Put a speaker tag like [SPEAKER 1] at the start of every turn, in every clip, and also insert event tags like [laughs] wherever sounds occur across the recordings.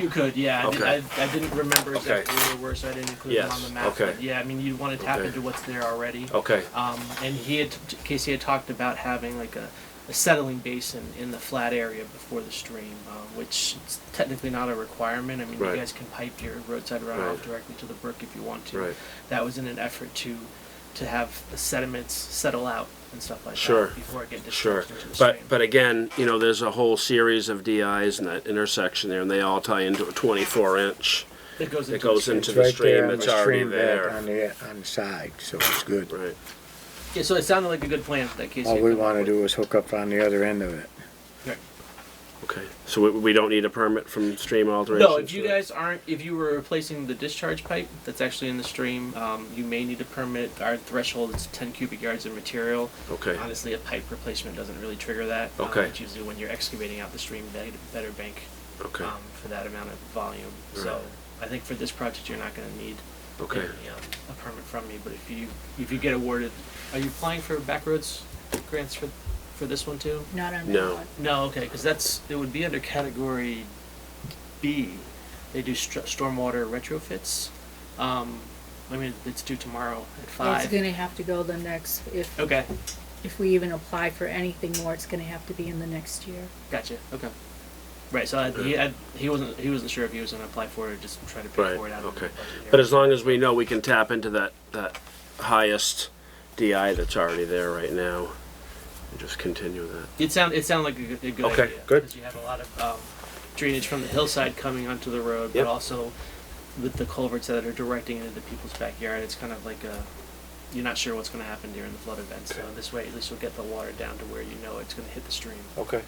[SPEAKER 1] You could, yeah. I,
[SPEAKER 2] Okay.
[SPEAKER 1] did, I, I didn't remember
[SPEAKER 2] Okay.
[SPEAKER 1] exactly where they were, so I didn't include them
[SPEAKER 2] Yes,
[SPEAKER 1] on the map.
[SPEAKER 2] okay.
[SPEAKER 1] But yeah, I mean, you want to tap
[SPEAKER 2] Okay. Oh.
[SPEAKER 1] into what's there already.
[SPEAKER 2] Okay.
[SPEAKER 1] Um, and he had, Casey had talked about having like a, a settling basin in the flat area before the stream, uh, which is technically not a requirement. I mean,
[SPEAKER 2] Right.
[SPEAKER 1] you guys can pipe your roadside runoff
[SPEAKER 2] Right.
[SPEAKER 1] directly to the brook if you want to.
[SPEAKER 2] Right.
[SPEAKER 1] That was in an effort to to have the sediments settle out and stuff like
[SPEAKER 2] Sure.
[SPEAKER 1] that before it get
[SPEAKER 2] Sure,
[SPEAKER 1] discharged into the
[SPEAKER 2] but
[SPEAKER 1] stream.
[SPEAKER 2] but again, you know, there's a whole series of DIs in that intersection there, and they all tie into a 24 inch.
[SPEAKER 1] it goes into
[SPEAKER 2] It
[SPEAKER 1] the
[SPEAKER 2] goes
[SPEAKER 1] stream.
[SPEAKER 2] into
[SPEAKER 3] It's
[SPEAKER 2] the
[SPEAKER 3] right there
[SPEAKER 2] stream.
[SPEAKER 3] on
[SPEAKER 2] It's
[SPEAKER 3] the
[SPEAKER 2] already
[SPEAKER 3] stream bed On
[SPEAKER 2] there.
[SPEAKER 3] the, on the side, so it's good.
[SPEAKER 2] Right.
[SPEAKER 1] Yeah, so it sounded like a good plan that Casey.
[SPEAKER 3] All
[SPEAKER 1] had
[SPEAKER 3] we
[SPEAKER 1] come up
[SPEAKER 3] wanna
[SPEAKER 1] with.
[SPEAKER 3] do is hook up on the other end of it.
[SPEAKER 1] Right.
[SPEAKER 2] Okay. So we, we don't need a permit from stream alterations.
[SPEAKER 1] No, if you
[SPEAKER 2] right?
[SPEAKER 1] guys aren't, if you were replacing the discharge pipe that's actually in the stream, um, you may need a permit. Our threshold is 10 cubic yards of material.
[SPEAKER 2] Okay.
[SPEAKER 1] Honestly, a pipe replacement doesn't really trigger that. Um,
[SPEAKER 2] Okay.
[SPEAKER 1] it's usually when you're excavating out the stream, bed- better bank
[SPEAKER 2] Okay.
[SPEAKER 1] um, for that amount of volume.
[SPEAKER 2] Right.
[SPEAKER 1] So I think for this project, you're not going to need
[SPEAKER 2] Okay.
[SPEAKER 1] any, um, a permit from me. But if you if you get awarded, are you applying for backroads grants for for this one too?
[SPEAKER 4] Not on
[SPEAKER 2] No.
[SPEAKER 4] that one.
[SPEAKER 1] No, okay, because that's it would be under category B. They do str- stormwater retrofits. Um, I mean, it's due tomorrow at
[SPEAKER 4] It's
[SPEAKER 1] five.
[SPEAKER 4] gonna have to go the next, if,
[SPEAKER 1] Okay,
[SPEAKER 4] if we even apply for anything more, it's gonna have to be in the next year.
[SPEAKER 1] gotcha. Okay, right. So I, he I, he wasn't he wasn't sure if he was gonna apply for it or just try to pay
[SPEAKER 2] Right.
[SPEAKER 1] for it out of the
[SPEAKER 2] Okay.
[SPEAKER 1] budget here.
[SPEAKER 2] But as long as we know we can tap into that that highest DI that's already there right now, and just continue that.
[SPEAKER 1] it sound it sounded like a, good- a good
[SPEAKER 2] Okay,
[SPEAKER 1] idea.
[SPEAKER 2] good.
[SPEAKER 1] 'cause you have a lot of um, drainage from the hillside coming onto the road,
[SPEAKER 2] Yep.
[SPEAKER 1] but also with the culverts that are directing it into people's backyard, it's kind of like a you're not sure what's going to happen during the flood event. So
[SPEAKER 2] Okay.
[SPEAKER 1] this way, at least you'll get the water down to where you know it's going to hit the stream.
[SPEAKER 2] Okay.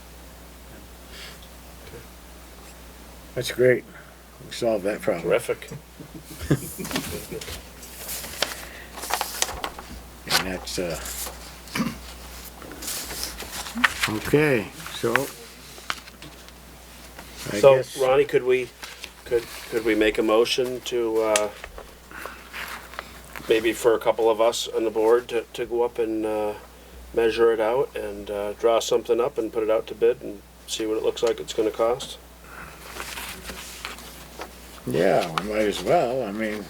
[SPEAKER 3] That's great. We solved that problem.
[SPEAKER 2] Terrific.
[SPEAKER 3] And that's, uh. Okay, so. I
[SPEAKER 2] So
[SPEAKER 3] guess-
[SPEAKER 2] Ronnie, could we, could, could we make a motion to, uh, maybe for a couple of us on the board to, to go up and, uh, measure it out and, uh, draw something up and put it out to bid and see what it looks like it's gonna cost?
[SPEAKER 3] Yeah, we might as well. I mean,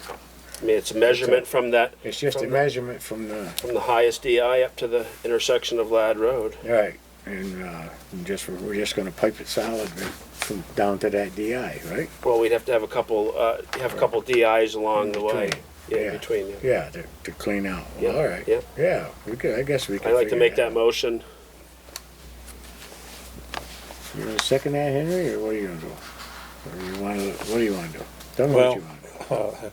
[SPEAKER 2] I mean, it's a measurement from that,
[SPEAKER 3] it's just a
[SPEAKER 2] From the-
[SPEAKER 3] measurement from the,
[SPEAKER 2] from the highest DI up to the intersection of Lad Road.
[SPEAKER 3] right, and, uh, and just, we're just gonna pipe it solid from down to that DI, right?
[SPEAKER 2] Well, we'd have to have a couple, uh, have a couple DIs along the way,
[SPEAKER 3] Between,
[SPEAKER 2] yeah,
[SPEAKER 3] yeah.
[SPEAKER 2] in between. yeah.
[SPEAKER 3] Yeah, to, to clean out.
[SPEAKER 2] Yeah,
[SPEAKER 3] Well, all right.
[SPEAKER 2] yeah.
[SPEAKER 3] Yeah, we could, I guess we could.
[SPEAKER 2] I'd like to
[SPEAKER 3] figure
[SPEAKER 2] make
[SPEAKER 3] it
[SPEAKER 2] that
[SPEAKER 3] out.
[SPEAKER 2] motion.
[SPEAKER 3] You gonna second that, Henry, or what are you gonna do? Or you wanna, what do you wanna do? Tell me
[SPEAKER 5] Well-
[SPEAKER 3] what you wanna do.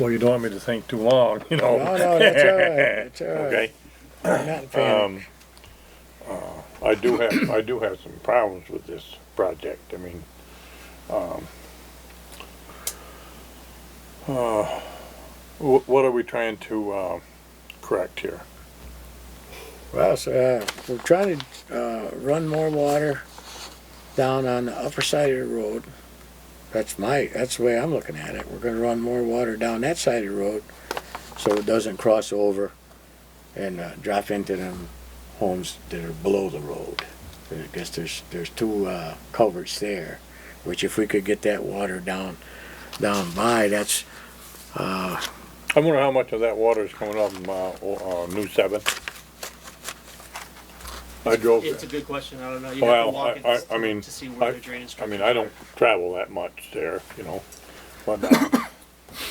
[SPEAKER 5] Well, you don't want me to think too long, you know.
[SPEAKER 3] No, no, that's all right,
[SPEAKER 5] [laughs]
[SPEAKER 3] that's all right.
[SPEAKER 5] Okay,
[SPEAKER 3] I'm not in panic.
[SPEAKER 5] um, uh, I do have, I do have some problems with this project, I mean, um, uh, wh- what are we trying to, uh, correct here?
[SPEAKER 3] Well, so, uh, we're trying to, uh, run more water down on the upper side of the road. That's my, that's the way I'm looking at it. We're gonna run more water down that side of the road so it doesn't cross over and, uh, drop into them homes that are below the road. I guess there's, there's two, uh, culverts there, which if we could get that water down, down by, that's, uh,
[SPEAKER 5] I wonder how much of that water is coming off, uh, o- uh, New Seven? I drove
[SPEAKER 1] It's a
[SPEAKER 5] there,
[SPEAKER 1] good question. I don't know. You have to
[SPEAKER 5] well,
[SPEAKER 1] walk
[SPEAKER 5] I,
[SPEAKER 1] it
[SPEAKER 5] I,
[SPEAKER 1] to,
[SPEAKER 5] I mean,
[SPEAKER 1] to see where
[SPEAKER 5] I,
[SPEAKER 1] the drainage.
[SPEAKER 5] I mean, I don't travel that much there, you know, but uh,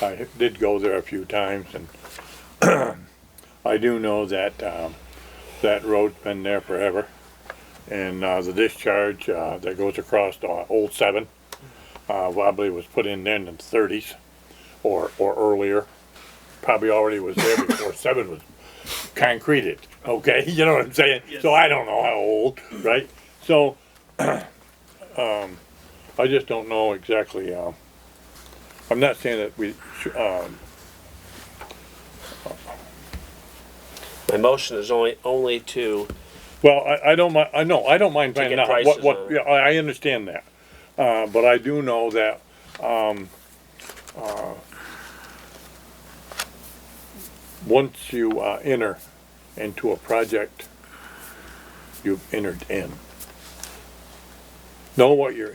[SPEAKER 5] [coughs] I did go there a few times and [clears throat] I do know that, um, that road's been there forever. And, uh, the discharge, uh, that goes across the old seven, uh, probably was put in there in the thirties or, or earlier. Probably already was there before seven was concreted, okay? [laughs] You know what I'm saying? So I don't know how old, right? So, I just don't know exactly, um, I'm not saying that we, sh- um,
[SPEAKER 2] My motion is only, only to
[SPEAKER 5] well, I, I don't mi, I know, I don't mind
[SPEAKER 2] To get
[SPEAKER 5] finding out
[SPEAKER 2] prices
[SPEAKER 5] what,
[SPEAKER 2] on
[SPEAKER 5] what,
[SPEAKER 2] it.
[SPEAKER 5] yeah, I, I understand that. Uh, but I do know that, um, uh, once you, uh, enter into a project, you've entered in. know what your